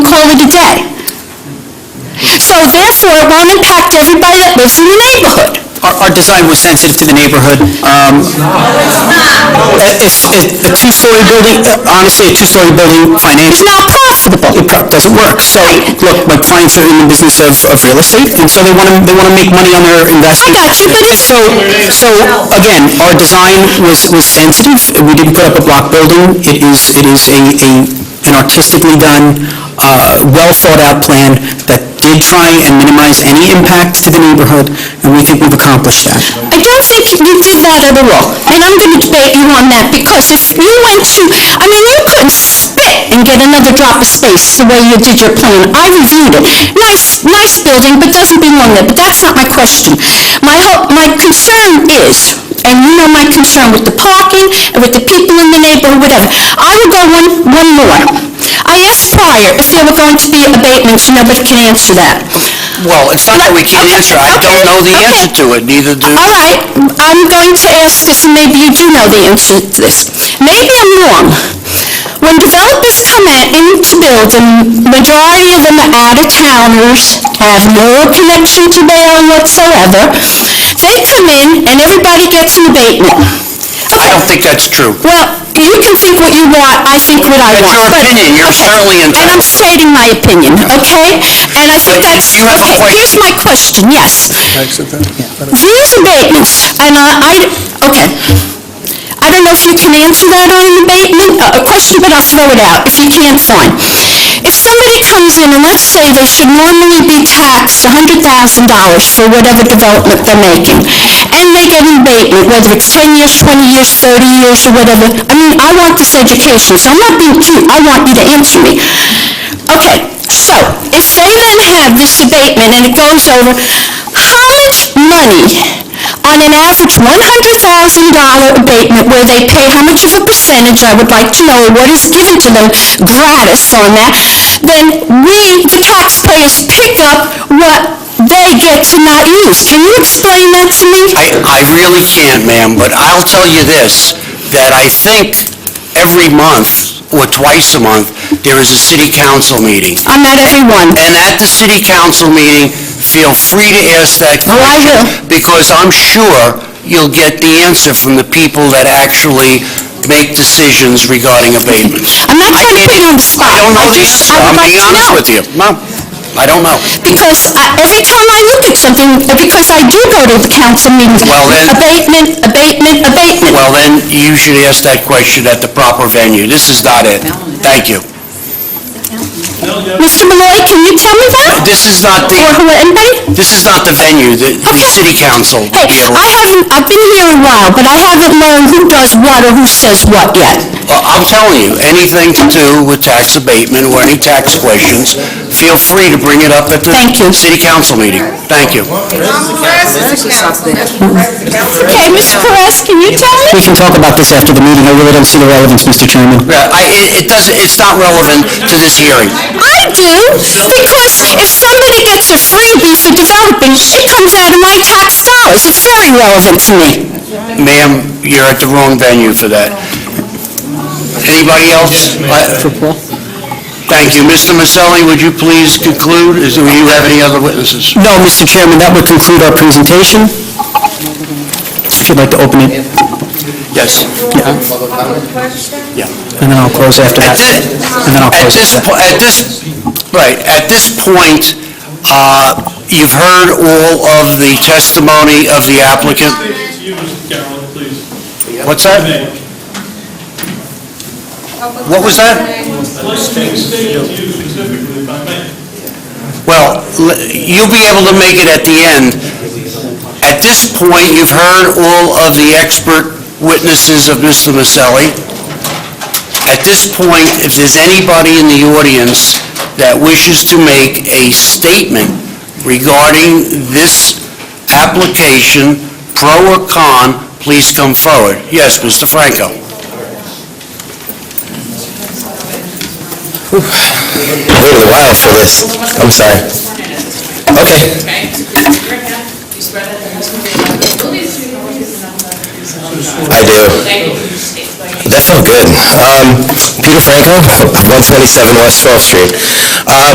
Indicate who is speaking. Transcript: Speaker 1: so therefore it won't impact everybody that lives in the neighborhood.
Speaker 2: Our, our design was sensitive to the neighborhood. Um, If, if a two-story building, uh, honestly, a two-story building
Speaker 1: It's
Speaker 2: financially
Speaker 1: not profitable.
Speaker 2: doesn't work. So, look, my clients are in the business of, of real estate, and so they want to, they want to make money on their
Speaker 1: I
Speaker 2: investment.
Speaker 1: got you, but it's-
Speaker 2: So, so, again, our design was, was sensitive. We didn't put up a block building. It is, it is a, a, an artistically done, uh, well-thought-out plan that did try and minimize any impacts to the neighborhood, and we think we've accomplished that.
Speaker 1: I don't think you did that at all, and I'm going to debate you on that, because if you went to, I mean, you couldn't spit and get another drop of space the way you did your plan. I reviewed it. Nice, nice building, but doesn't belong there, but that's not my question. My ho my concern is, and you know my concern with the parking, and with the people in the neighborhood, whatever, I will go one, one more. I asked prior if there were going to be abatements, nobody can answer that.
Speaker 3: Well, it's not that we can't answer, I don't know the answer to it, neither do...
Speaker 1: All right, I'm going to ask this, and maybe you do know the answer to this. Maybe I'm wrong. When developers come in in to build, the majority of them are out-of-towners, have no connection to Bayonne whatsoever. They come in, and everybody gets an abatement.
Speaker 3: I don't think that's true.
Speaker 1: Well, you can think what you want, I think what I want. but-
Speaker 3: That's your opinion. You're
Speaker 1: Okay.
Speaker 3: certainly
Speaker 1: And I'm
Speaker 3: entitled.
Speaker 1: stating my opinion, okay? And I think
Speaker 3: But
Speaker 1: that's,
Speaker 3: you have a
Speaker 1: okay,
Speaker 3: question.
Speaker 1: here's my question, yes. These abatements, and I, I- okay. I don't know if you can answer that on an abatement, uh, a a question, but I'll throw it out. If you can't, fine. If somebody comes in, and let's say they should normally be taxed $100,000 for whatever development they're making, and they get an abatement, whether it's 10 years, 20 years, 30 years, or whatever, I mean, I want this education, so I'm not being cute, I want you to answer me. Okay, so, if they then have this abatement and it goes over, how much money on an average $100,000 abatement where they pay how much of a percentage, I would like to know, what is given to them gratis on that, then we, the taxpayers, pick up what they get to not use. Can you explain that to me?
Speaker 3: I, I really can't, ma'am, but I'll tell you this, that I think every month, or twice a month, there is a city council meeting.
Speaker 1: I'm not everyone.
Speaker 3: And at the city council meeting, feel free to ask that
Speaker 1: Oh,
Speaker 3: question.
Speaker 1: I will.
Speaker 3: Because I'm sure you'll get the answer from the people that actually make decisions regarding abatements.
Speaker 1: I'm not trying to put you on the spot.
Speaker 3: I don't know the
Speaker 1: just- I
Speaker 3: answer,
Speaker 1: would
Speaker 3: I'm
Speaker 1: like
Speaker 3: being
Speaker 1: to
Speaker 3: honest
Speaker 1: know.
Speaker 3: with you. No, I don't know.
Speaker 1: Because I- every time I look at something, because I do go to the council meetings,
Speaker 3: Well, then-
Speaker 1: abatement, abatement, abatement.
Speaker 3: Well, then, you should ask that question at the proper venue. This is not it. Thank you.
Speaker 1: Mr. Malloy, can you tell me that?
Speaker 3: This is not the,
Speaker 1: Or who, anybody?
Speaker 3: this is not the venue, the, the
Speaker 1: Okay.
Speaker 3: city council.
Speaker 1: Hey,
Speaker 3: deal.
Speaker 1: I haven't, I've been here a while, but I haven't learned who does what or who says what yet.
Speaker 3: Well, I'm telling you, anything to do with tax abatement or any tax questions, feel free to bring it up at the
Speaker 1: Thank you.
Speaker 3: city council meeting. Thank you. Uh,
Speaker 1: Okay, Mr. Perez, can you tell
Speaker 2: We
Speaker 1: me?
Speaker 2: can talk about this after the meeting, I really don't see the relevance, Mr. Chairman.
Speaker 3: Yeah, I, it, it doesn't, it's not relevant to this hearing.
Speaker 1: I do, because if somebody gets a freebie for developing, it comes out of my tax dollars. It's very relevant to me.
Speaker 3: Ma'am, you're at the wrong venue for that. Anybody else? For Paul? Thank you. Mr. Maselli, would you please conclude? Is, do you have any other witnesses?
Speaker 2: No, Mr. Chairman, that would conclude our presentation. If you'd like to open it,
Speaker 3: Yes.
Speaker 2: and then I'll close after
Speaker 3: At
Speaker 2: that.
Speaker 3: thi-
Speaker 2: And then I'll
Speaker 3: At
Speaker 2: close
Speaker 3: this,
Speaker 2: after that.
Speaker 3: po- at this, right, at this point, uh, you've heard all of the testimony of the applicant.
Speaker 4: You, Mr. Carroll, please.
Speaker 3: What's that? What was that?
Speaker 4: I'd like to make a statement to you specifically, if I may.
Speaker 3: Well, l- you'll be able to make it at the end. At this point, you've heard all of the expert witnesses of Mr. Maselli. At this point, if there's anybody in the audience that wishes to make a statement regarding this application, pro or con, please come forward. Yes, Mr. Franco.
Speaker 5: waited a while for this. I'm sorry. Okay. I do. That felt good. Um, Peter Franco, 127 West 12th Street. Um,